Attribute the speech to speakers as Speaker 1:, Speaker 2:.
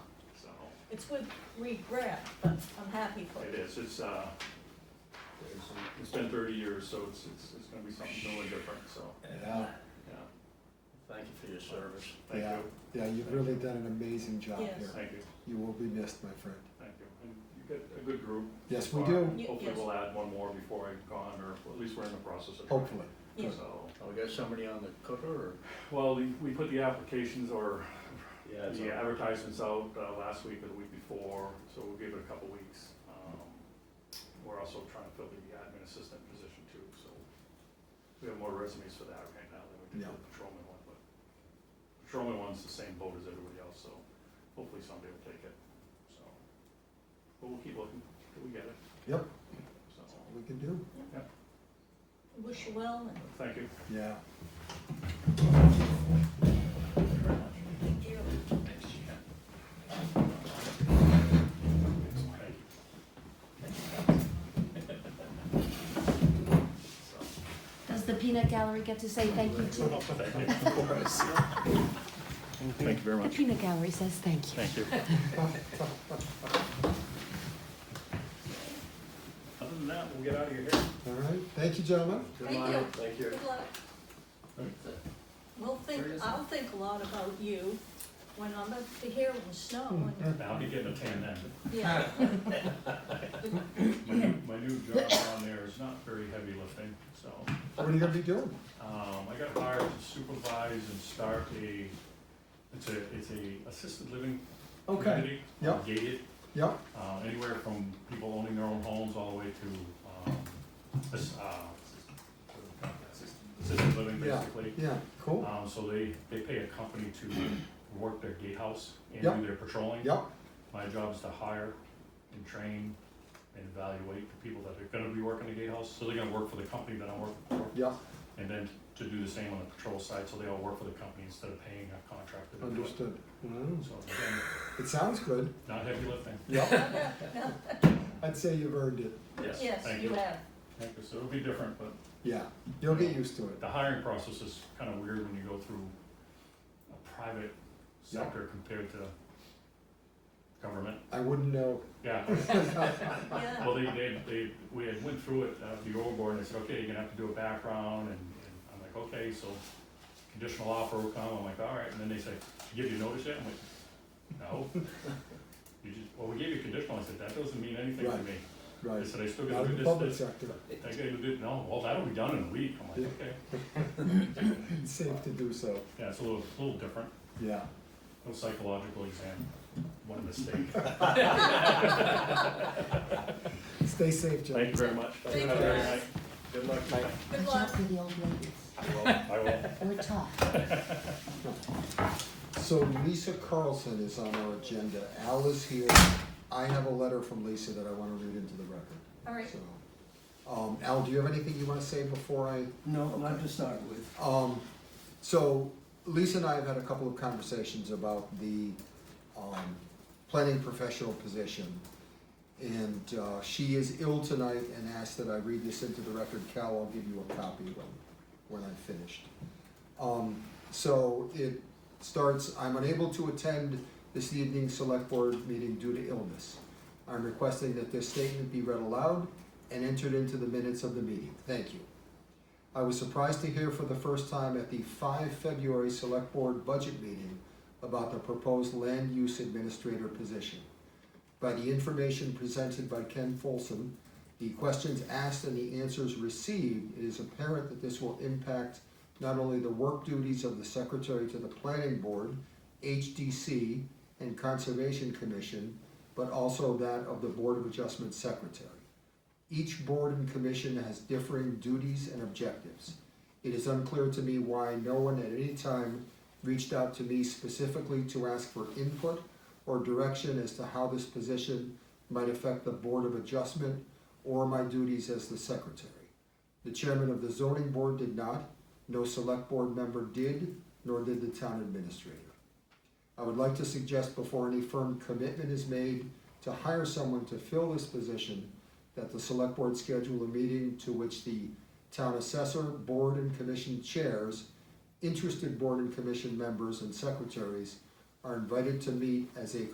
Speaker 1: It's with regret, but I'm happy for
Speaker 2: It
Speaker 1: you.
Speaker 2: is, it's, uh, it's been thirty years, so it's, it's, it's gonna be something totally different, so,
Speaker 3: Yeah,
Speaker 2: yeah,
Speaker 4: Thank you for your service.
Speaker 2: thank
Speaker 3: Yeah.
Speaker 2: you,
Speaker 3: yeah, you've really done an amazing job
Speaker 1: Yes.
Speaker 3: here.
Speaker 2: thank you,
Speaker 3: You will be missed, my friend.
Speaker 2: thank you. And you got a good group.
Speaker 3: Yes,
Speaker 2: so
Speaker 3: we
Speaker 2: far.
Speaker 3: do.
Speaker 1: Y-
Speaker 2: Hopefully
Speaker 1: yes.
Speaker 2: we'll add one more before I'm gone, or at least we're in the process of. trying.
Speaker 3: Hopefully.
Speaker 1: Yeah.
Speaker 2: So,
Speaker 4: Oh, we got somebody on the cooker or?
Speaker 2: well, we, we put the applications or
Speaker 4: Yeah. it's
Speaker 2: the
Speaker 4: on.
Speaker 2: advertisements out, uh, last week or the week before, so we'll give it a couple weeks. Um, We're also trying to fill the admin assistant position too, so we have more resumes for that right now than we did for the patrolman one, but patrolman one's the same boat as everybody else, so hopefully somebody will take it, so. But we'll keep looking till we get it,
Speaker 3: Yep,
Speaker 2: so,
Speaker 3: we can do.
Speaker 1: Wish you well and
Speaker 2: thank you.
Speaker 3: Yeah.
Speaker 1: thank you.
Speaker 5: Does the peanut gallery get to say thank you too?
Speaker 2: Thank you very
Speaker 5: The peanut gallery says thank you.
Speaker 2: Thank you. Other than that, we'll get out of your hair.
Speaker 3: All right, thank you, gentlemen.
Speaker 1: Thank you.
Speaker 4: Thank you.
Speaker 1: Good luck. We'll think, I'll think a lot about you when I'm up to here in the snow and,
Speaker 2: I'll be getting a tan then.
Speaker 1: yeah.
Speaker 2: My new, my new job on there is not very heavy lifting, so,
Speaker 3: What are you gonna be doing?
Speaker 2: um, I got hired to supervise and start a, it's a, it's a assisted living
Speaker 3: Okay,
Speaker 2: community.
Speaker 3: Yep.
Speaker 2: Gated,
Speaker 3: yep,
Speaker 2: uh, anywhere from people owning their own homes all the way to, um, this, uh, what do we call that? Assist- assisted living
Speaker 3: Yeah.
Speaker 2: basically.
Speaker 3: yeah, cool.
Speaker 2: Um, so they, they pay a company to work their gatehouse and
Speaker 3: Yep.
Speaker 2: do their patrolling.
Speaker 3: Yep,
Speaker 2: My job is to hire and train and evaluate the people that are gonna be working the gatehouse, so they're gonna work for the company that I'm working for.
Speaker 3: yep,
Speaker 2: And then to do the same on the patrol side, so they all work for the company instead of paying a contractor to do it.
Speaker 3: understood. Mm,
Speaker 2: So again,
Speaker 3: It sounds good.
Speaker 2: not heavy lifting.
Speaker 3: Yep, I'd say you've earned it.
Speaker 1: Yes,
Speaker 2: Thank
Speaker 1: you have.
Speaker 2: Thank you, so it'll be different, but
Speaker 3: Yeah, you'll get used to it.
Speaker 2: the hiring process is kinda weird when you go through a private
Speaker 3: Yeah.
Speaker 2: sector compared to government.
Speaker 3: I wouldn't know.
Speaker 2: Yeah,
Speaker 1: Yeah.
Speaker 2: Well, they, they, they, we had went through it, uh, the old board, and they said, okay, you're gonna have to do a background, and, and I'm like, okay, so conditional offer will come, I'm like, all right, and then they say, "Did you give you notice yet? I'm like, no. You just, well, we gave you conditional, I said, that doesn't mean anything to
Speaker 3: Right.
Speaker 2: me. They
Speaker 3: Right,
Speaker 2: said, I still
Speaker 3: not
Speaker 2: gotta
Speaker 3: in
Speaker 2: do
Speaker 3: the public
Speaker 2: this, this,
Speaker 3: sector.
Speaker 2: I gotta do, no, well, that'll be done in a week, I'm
Speaker 3: Yeah.
Speaker 2: like, okay,
Speaker 3: It's safe to do so.
Speaker 2: yeah, it's a little, a little different,
Speaker 3: Yeah.
Speaker 2: no psychological exam, one mistake.
Speaker 3: Stay safe,
Speaker 2: Thank
Speaker 3: gentlemen.
Speaker 2: you very much.
Speaker 1: Thank you,
Speaker 2: Have a great
Speaker 1: guys.
Speaker 2: night.
Speaker 4: Good luck, Mike.
Speaker 1: Good
Speaker 5: Watch out
Speaker 1: luck.
Speaker 5: for the old ladies.
Speaker 2: I will, I will.
Speaker 5: We're tough.
Speaker 3: So Lisa Carlson is on our agenda. Al is here. I have a letter from Lisa that I want to read into the record.
Speaker 1: All right.
Speaker 3: So, um, Al, do you have anything you want to say before I?
Speaker 6: No, not to start with.
Speaker 3: Um, so Lisa and I have had a couple of conversations about the, um, planning professional position. And, uh, she is ill tonight and asked that I read this into the record. Cal, I'll give you a copy when, when I'm finished. Um, so it starts, I'm unable to attend this evening's select board meeting due to illness. I'm requesting that this statement be read aloud and entered into the minutes of the meeting. Thank you. I was surprised to hear for the first time at the five February Select Board Budget Meeting about the proposed land use administrator position. By the information presented by Ken Folsom, the questions asked and the answers received, it is apparent that this will impact not only the work duties of the secretary to the planning board, HDC, and Conservation Commission, but also that of the Board of Adjustment secretary. Each board and commission has differing duties and objectives. It is unclear to me why no one at any time reached out to me specifically to ask for input or direction as to how this position might affect the Board of Adjustment or my duties as the secretary. The chairman of the zoning board did not, no select board member did, nor did the town administrator. I would like to suggest before any firm commitment is made to hire someone to fill this position, that the select board schedule a meeting to which the town assessor, board and commission chairs, interested board and commission members and secretaries are invited to meet as a